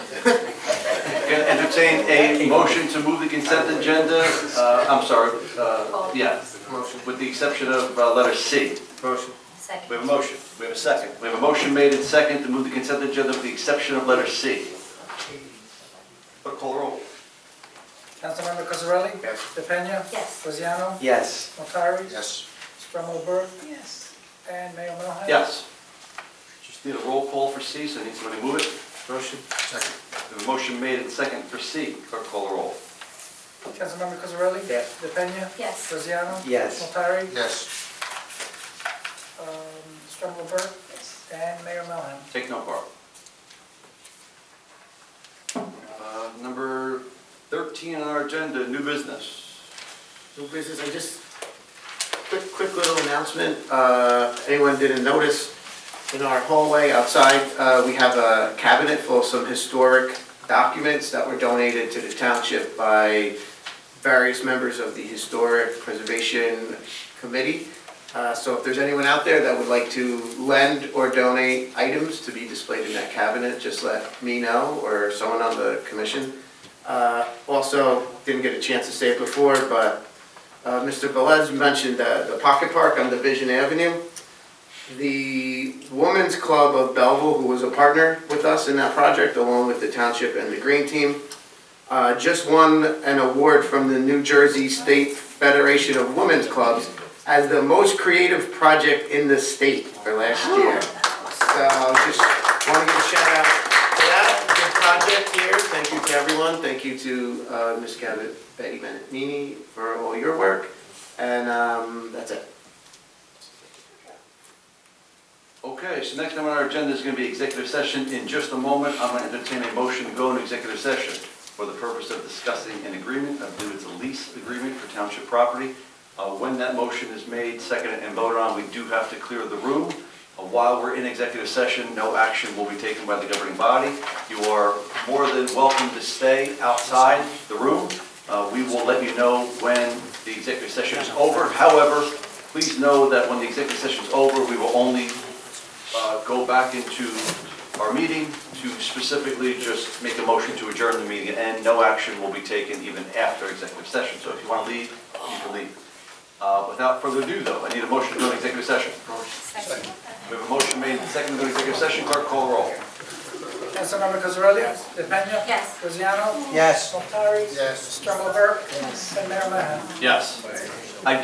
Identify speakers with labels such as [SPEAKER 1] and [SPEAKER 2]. [SPEAKER 1] entertain a motion to move the consent agenda, uh, I'm sorry, uh, yeah, with the exception of uh, letter C.
[SPEAKER 2] Motion.
[SPEAKER 1] We
[SPEAKER 3] Second.
[SPEAKER 1] have a motion, we have a second. We have a motion made and second to move the consent agenda with the exception of letter C. Clerk, call the roll.
[SPEAKER 4] Councilmember Cosarelli?
[SPEAKER 2] Yes.
[SPEAKER 4] DePena?
[SPEAKER 3] Yes.
[SPEAKER 4] Rosiano?
[SPEAKER 5] Yes.
[SPEAKER 4] Notari?
[SPEAKER 2] Yes.
[SPEAKER 4] Strummel Burke?
[SPEAKER 3] Yes.
[SPEAKER 4] And Mayor Melham?
[SPEAKER 1] Yes. Just need a roll call for C, so I need somebody to move it.
[SPEAKER 2] Motion. Second.
[SPEAKER 1] We have a motion made and second for C. Clerk, call the roll.
[SPEAKER 4] Councilmember Cosarelli?
[SPEAKER 2] Yes.
[SPEAKER 4] DePena?
[SPEAKER 3] Yes.
[SPEAKER 4] Rosiano?
[SPEAKER 5] Yes.
[SPEAKER 4] Notari?
[SPEAKER 2] Yes.
[SPEAKER 4] Um, Strummel Burke? And Mayor Melham?
[SPEAKER 1] Take no part. Uh, Number 13 on our agenda, new business.
[SPEAKER 2] New business, I just, quick, quick little announcement, uh, anyone didn't notice, in our hallway outside, uh, we have a cabinet full of some historic documents that were donated to the township by various members of the Historic Preservation Committee. Uh, so if there's anyone out there that would like to lend or donate items to be displayed in that cabinet, just let me know or someone on the commission. Uh, also, didn't get a chance to say it before, but uh, Mr. Velez mentioned the the Pocket Park on Division Avenue. The Women's Club of Belleville, who was a partner with us in that project, along with the township and the green team, uh, just won an award from the New Jersey State Federation of Women's Clubs as the most creative project in the state for last year. So just want to give a shout out to that, good project here. Thank you to everyone. Thank you to uh, Ms. Cabot, Betty Benatini for all your work. And um, that's it.
[SPEAKER 1] Okay, so next on our agenda is going to be executive session. In just a moment, I'm going to entertain a motion to go into executive session for the purpose of discussing an agreement, I believe it's a lease agreement for township property. Uh, When that motion is made, seconded and voted on, we do have to clear the room. Uh, While we're in executive session, no action will be taken by the governing body. You are more than welcome to stay outside the room. Uh, We will let you know when the executive session is over. However, please know that when the executive session is over, we will only uh, go back into our meeting to specifically just make a motion to adjourn the meeting, and no action will be taken even after executive session. So if you want to leave, you can leave. Uh, Without further ado, though, I need a motion to go into executive session.
[SPEAKER 3] Second.
[SPEAKER 1] We have a motion made and seconded to go into executive session. Clerk, call the roll.
[SPEAKER 4] Councilmember Cosarelli? Yes. DePena?
[SPEAKER 3] Yes.
[SPEAKER 4] Rosiano?
[SPEAKER 5] Yes.
[SPEAKER 4] Notari?
[SPEAKER 2] Yes.
[SPEAKER 4] Strummel Burke? Yes. And Mayor Melham?
[SPEAKER 1] Yes.